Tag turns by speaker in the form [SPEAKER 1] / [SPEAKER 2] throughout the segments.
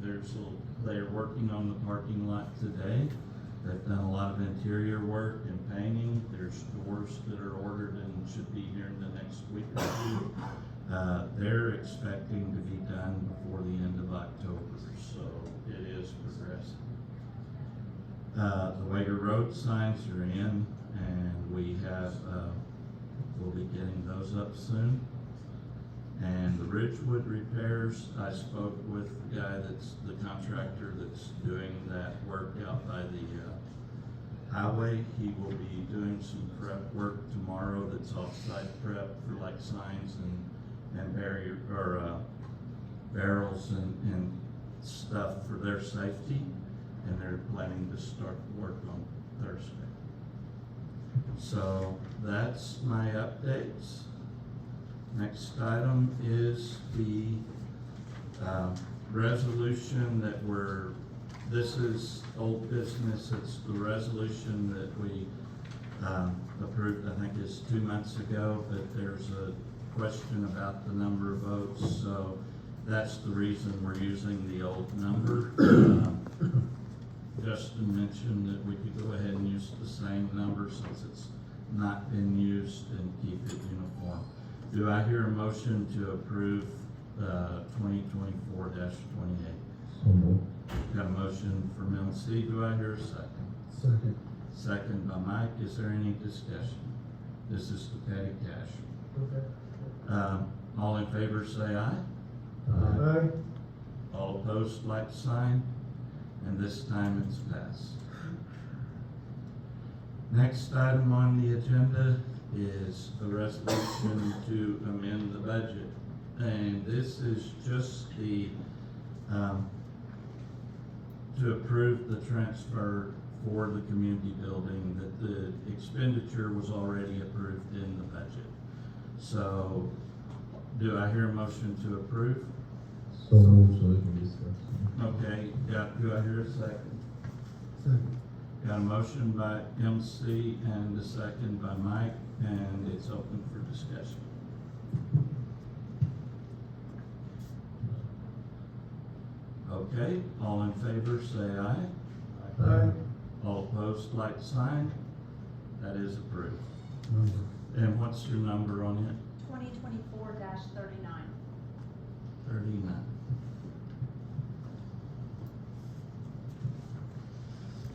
[SPEAKER 1] contractors will- that are working on the parking lot today. They've done a lot of interior work and painting. There's doors that are ordered and should be here in the next week or two. Uh, they're expecting to be done before the end of October, so it is progressing. Uh, the Wager Road signs are in and we have, uh, we'll be getting those up soon. And the Ridgewood repairs, I spoke with the guy that's, the contractor that's doing that work out by the, uh, highway. He will be doing some prep work tomorrow that's off-site prep for like signs and, and barrier, or, uh, barrels and, and stuff for their safety. And they're planning to start work on Thursday. So that's my updates. Next item is the uh, resolution that we're, this is old business. It's the resolution that we um, approved, I think it's two months ago, but there's a question about the number of votes. So that's the reason we're using the old number. Um, Justin mentioned that we could go ahead and use the same number since it's not been used and keep it uniform. Do I hear a motion to approve, uh, twenty twenty-four twenty-eight?
[SPEAKER 2] So moved.
[SPEAKER 1] Got a motion from LC, do I hear a second?
[SPEAKER 2] Second.
[SPEAKER 1] Second by Mike, is there any discussion? This is the petty cash.
[SPEAKER 2] Okay.
[SPEAKER 1] Um, all in favor say aye,
[SPEAKER 2] Aye.
[SPEAKER 1] all opposed like sign, and this time it's passed. Next item on the agenda is a resolution to amend the budget. And this is just the, um, to approve the transfer for the community building, that the expenditure was already approved in the budget. So, do I hear a motion to approve?
[SPEAKER 2] So moved, so we can discuss.
[SPEAKER 1] Okay, yeah, do I hear a second?
[SPEAKER 2] Second.
[SPEAKER 1] Got a motion by MC and a second by Mike, and it's open for discussion. Okay, all in favor, say aye.
[SPEAKER 2] Aye.
[SPEAKER 1] All opposed, like sign. That is approved. And what's your number on it?
[SPEAKER 3] Twenty twenty-four thirty-nine.
[SPEAKER 1] Thirty-nine.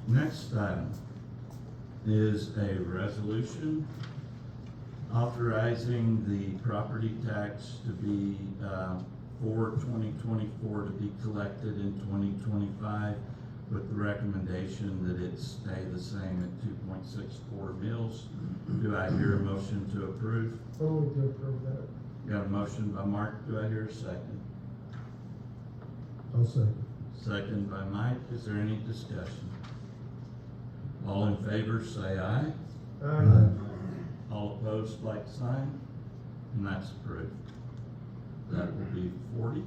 [SPEAKER 1] Next item is a resolution authorizing the property tax to be, uh, for twenty twenty-four to be collected in twenty twenty-five with the recommendation that it stay the same at two point six four mils. Do I hear a motion to approve?
[SPEAKER 2] So moved to approve that.
[SPEAKER 1] Got a motion by Mark, do I hear a second?
[SPEAKER 2] I'll second.
[SPEAKER 1] Second by Mike, is there any discussion? All in favor, say aye. All opposed, like sign, and that's approved. That will be forty.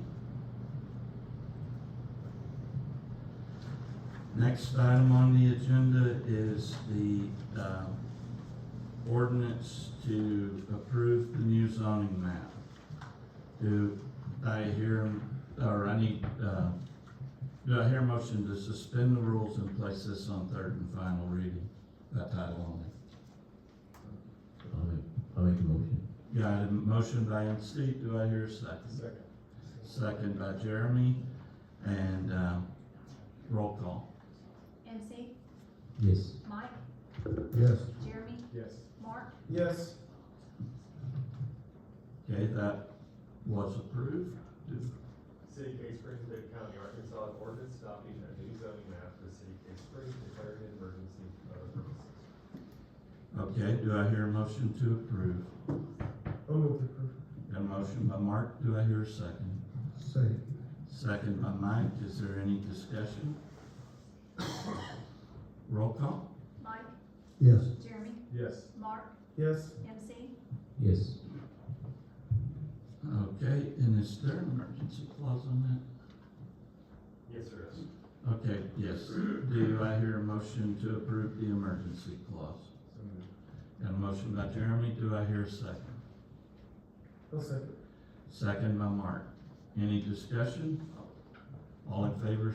[SPEAKER 1] Next item on the agenda is the, uh, ordinance to approve the new zoning map. Do I hear, or I need, uh, do I hear a motion to suspend the rules and place this on third and final reading by title only?
[SPEAKER 2] I'll make, I'll make a motion.
[SPEAKER 1] Got a motion by MC, do I hear a second?
[SPEAKER 2] Second.
[SPEAKER 1] Second by Jeremy, and, uh, roll call.
[SPEAKER 3] MC,
[SPEAKER 2] Yes.
[SPEAKER 3] Mike,
[SPEAKER 2] Yes.
[SPEAKER 3] Jeremy,
[SPEAKER 2] Yes.
[SPEAKER 3] Mark,
[SPEAKER 2] Yes.
[SPEAKER 1] Okay, that was approved. Do-
[SPEAKER 4] City Case Springs, Dade County, Arkansas, an ordinance adopting a new zoning map for the City Case Springs, declaring an emergency for other purposes.
[SPEAKER 1] Okay, do I hear a motion to approve?
[SPEAKER 2] I'll move Oh, to approve.
[SPEAKER 1] Got a motion by Mark, do I hear a second?
[SPEAKER 2] Second.
[SPEAKER 1] Second by Mike, is there any discussion? Roll call?
[SPEAKER 3] Mike,
[SPEAKER 2] Yes.
[SPEAKER 3] Jeremy,
[SPEAKER 4] Yes.
[SPEAKER 3] Mark,
[SPEAKER 2] Yes.
[SPEAKER 3] MC,
[SPEAKER 2] Yes.
[SPEAKER 1] Okay, and is there an emergency clause on that?
[SPEAKER 4] Yes, sir.
[SPEAKER 1] Okay, yes. Do I hear a motion to approve the emergency clause? Got a motion by Jeremy, do I hear a second?
[SPEAKER 2] I'll second.
[SPEAKER 1] Second by Mark. Any discussion? All in favor,